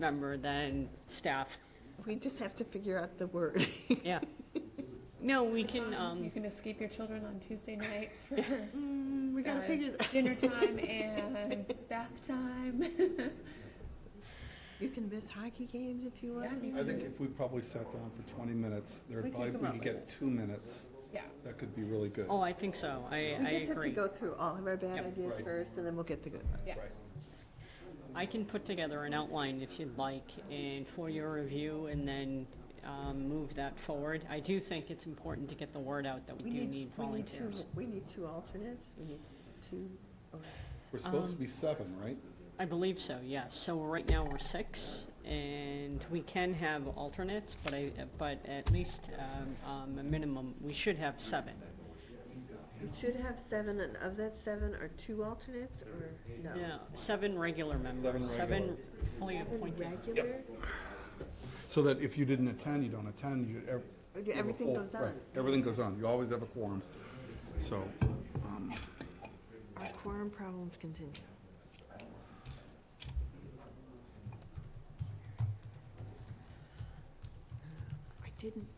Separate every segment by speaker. Speaker 1: member than staff.
Speaker 2: We just have to figure out the word.
Speaker 1: Yeah. No, we can, um,
Speaker 3: You can escape your children on Tuesday nights for
Speaker 1: Mm,
Speaker 2: We gotta
Speaker 3: uh,
Speaker 2: figure, that-
Speaker 3: dinner time and bath time.
Speaker 2: you can miss hockey games if you
Speaker 3: Yeah,
Speaker 2: want.
Speaker 3: you
Speaker 4: I think if we probably sat down for 20 minutes,
Speaker 2: We
Speaker 4: there'd
Speaker 2: could
Speaker 4: probably,
Speaker 2: come
Speaker 4: we
Speaker 2: up
Speaker 4: could
Speaker 2: with
Speaker 4: get two minutes.
Speaker 3: Yeah.
Speaker 4: That could be really good.
Speaker 1: oh, I think so. I,
Speaker 2: We
Speaker 1: I
Speaker 2: just have to
Speaker 1: agree.
Speaker 2: go through all of our bad
Speaker 1: Yep.
Speaker 2: ideas
Speaker 4: Right.
Speaker 2: first, and then we'll get the good one.
Speaker 3: Yes.
Speaker 1: I can put together an outline if you'd like and for your review and then, um, move that forward. I do think it's important to get the word out that we do need
Speaker 2: we need two-
Speaker 1: volunteers.
Speaker 2: We need two alternates, we need two, oh,
Speaker 4: We're supposed to be seven, right?
Speaker 1: I believe so, yes. So right now we're six and we can have alternates, but I, but at least, um, um, a minimum, we should have seven.
Speaker 2: we should have seven, and of that seven, are two alternates, or no?
Speaker 1: Yeah, seven regular members, seven
Speaker 4: regular.
Speaker 1: fully
Speaker 2: Seven
Speaker 1: appointed.
Speaker 2: regular?
Speaker 4: So that if you didn't attend, you don't attend, you. ev-
Speaker 2: Okay,
Speaker 4: you have a
Speaker 2: everything
Speaker 4: full-
Speaker 2: goes on.
Speaker 4: right, Everything goes on. You always have a quorum. So, um,
Speaker 2: Our quorum problems continue. Uh, I didn't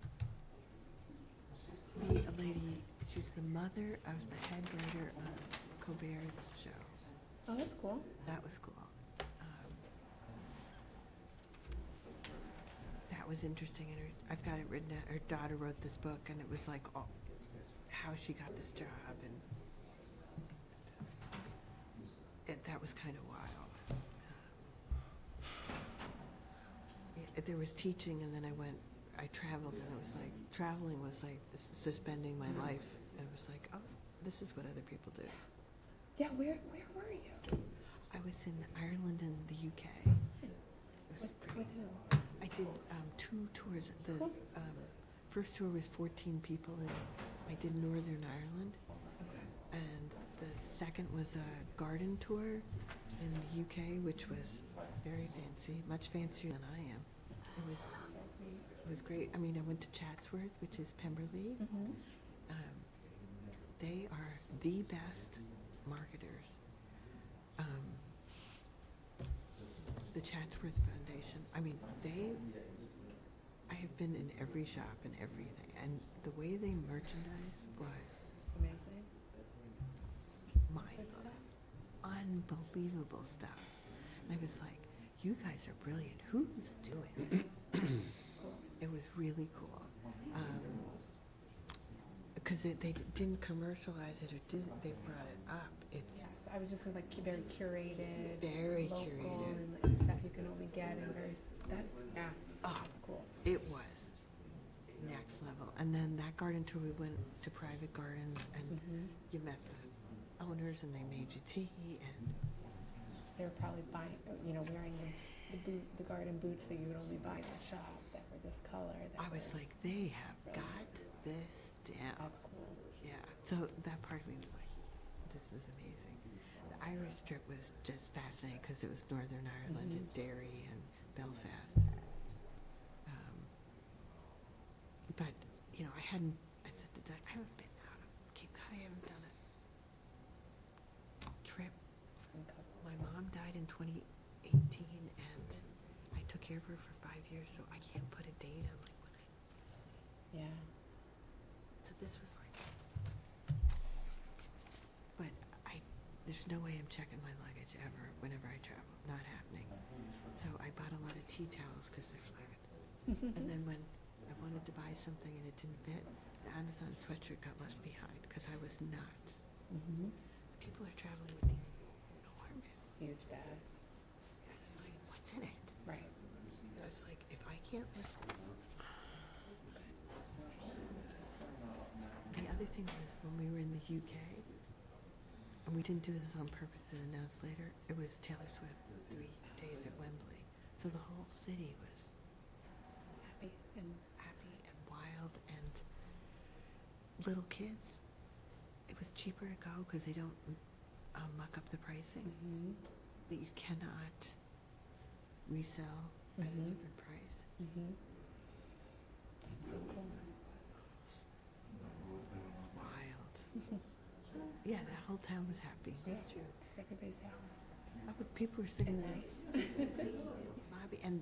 Speaker 2: meet a lady, she's the mother of the head writer on Colbert's show.
Speaker 3: Oh, that's cool.
Speaker 2: That was cool. Um, That was interesting, and her, I've got it written down, her daughter wrote this book, and it was like, all- how she got this job, and it, that was kind of wild. Um, Yeah, There was teaching, and then I went, I traveled, and it was like, traveling was like suspending my life, and it was like, oh, this is what other people do.
Speaker 3: Yeah, where where were you?
Speaker 2: I was in Ireland and the UK. It was
Speaker 3: With,
Speaker 2: great.
Speaker 3: with who?
Speaker 2: I did um, two tours. The
Speaker 3: Cool.
Speaker 2: um, first tour was 14 people, and I did Northern Ireland. And the second was a garden tour in the UK, which was very fancy, much fancier than I am. It was it was great. I mean, I went to Chatsworth, which is Pemberley.
Speaker 3: Mhm.
Speaker 2: Um, they are the best marketers. Um, the Chatsworth Foundation. I mean, they. I have been in every shop and everything, and the way they merchandise was
Speaker 3: Amazing.
Speaker 2: mind
Speaker 3: Good stuff.
Speaker 2: blowing, unbelievable stuff. And I was like, "You guys are brilliant. Who's doing this?" It was really cool. Because it they didn't commercialize it or didn't, they brought it up. It's,
Speaker 3: Yes, I was just like cu- very curated.
Speaker 2: Very
Speaker 3: local
Speaker 2: curated.
Speaker 3: And like stuff you can only get and very s- that yeah.
Speaker 2: Oh.
Speaker 3: That's cool.
Speaker 2: it was next level. And then that garden tour, we went to private gardens and you met the owners and they made you tea and,
Speaker 3: They were probably buying you know wearing the, the boot the garden boots that you would only buy in the shop that were this color. That
Speaker 2: I was
Speaker 3: were-
Speaker 2: like, they have got this down.
Speaker 3: that's cool.
Speaker 2: Yeah, so that part of me was like, this is amazing. The Irish trip was just fascinating because it was Northern Ireland
Speaker 3: Mhm.
Speaker 2: and Derry and Belfast. Um, but you know, I hadn't. I said to Doug, I haven't been out of Cape Cod. I haven't done a trip.
Speaker 3: And co-
Speaker 2: My mom died in 2018, and I took care of her for five years, so I can't put a date on like when I
Speaker 3: Yeah.
Speaker 2: so this was like, but I, there's no way I'm checking my luggage ever whenever I travel. Not happening. So I bought a lot of tea towels because they're flat. and then when I wanted to buy something and it didn't fit, the Amazon sweatshirt got left behind because I was not.
Speaker 3: Mm-hmm.
Speaker 2: People are traveling with these enormous.
Speaker 3: Huge bag.
Speaker 2: And it's like, what's in it?
Speaker 3: Right.
Speaker 2: I was like, if I can't lift it. The other thing was when we were in the UK, and we didn't do this on purpose to announce later, it was Taylor Swift three days at Wembley. So the whole city was
Speaker 3: Happy and
Speaker 2: happy and wild and little kids. It was cheaper to go because they don't uh, muck up the pricing
Speaker 3: Mhm.
Speaker 2: that you cannot resell at a
Speaker 3: Mhm.
Speaker 2: different price.
Speaker 3: Mhm. That's so cool.
Speaker 2: Wild. yeah, the whole town was happy.
Speaker 3: Yeah.
Speaker 2: That's true.
Speaker 3: Everybody's happy.
Speaker 2: People were sitting
Speaker 3: and
Speaker 2: in
Speaker 3: nice.
Speaker 2: the lobby, and